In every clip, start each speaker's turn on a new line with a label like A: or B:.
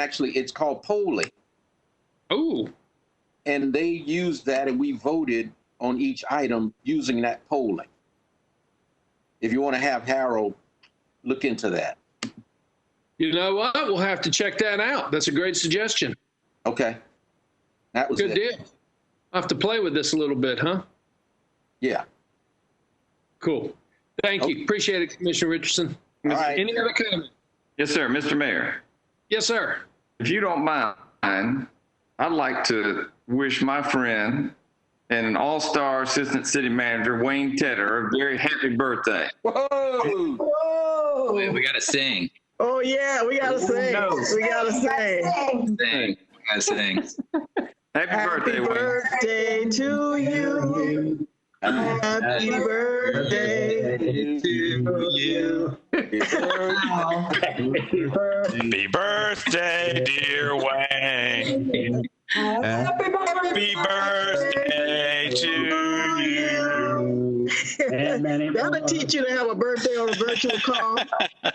A: actually it's called polling,
B: Oh,
A: and they used that, and we voted on each item using that polling. If you want to have Harold look into that,
B: you know what? We'll have to check that out. That's a great suggestion.
A: okay? That was
B: Good
A: it.
B: deal. I'll have to play with this a little bit, huh?
A: Yeah.
B: Cool. Thank you. Appreciate it, Commissioner Richardson.
A: All right.
B: Any other comment?
C: Yes, sir. Mr. Mayor,
B: Yes, sir.
C: if you don't mind, I'd like to wish my friend and an all-star assistant city manager, Wayne Tedder, a very happy birthday.
A: Whoa!
D: Wait,
E: Whoa!
D: we gotta sing.
E: Oh yeah, we gotta sing. We gotta sing.
D: Sing. We gotta sing.
C: Happy,
E: Happy
C: birthday, Wayne.
E: birthday to you. Happy birthday to you.
F: Happy birthday, dear Wayne.
E: Happy
F: Happy birthday to you.
E: That'll teach you to have a birthday on a virtual call.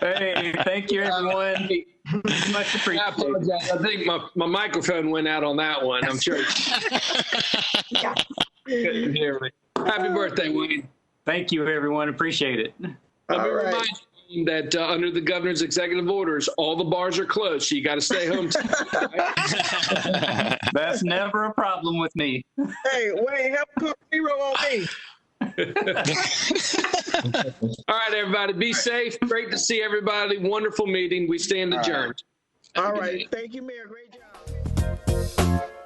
G: Hey, thank you, everyone. Much
B: I
G: appreciated.
B: apologize. I think my, my microphone went out on that one. I'm sure. Couldn't hear me. Happy birthday, Wayne.
G: Thank you, everyone. Appreciate it.
B: Let me
E: All right.
B: remind you that uh, under the governor's executive orders, all the bars are closed, so you got to stay home. T-
G: That's never a problem with me.
E: Hey, Wayne, help put zero on me.
B: all right, everybody, be safe. Great to see everybody. Wonderful meeting. We stand adjourned.
E: All right, thank you, Mayor. Great job.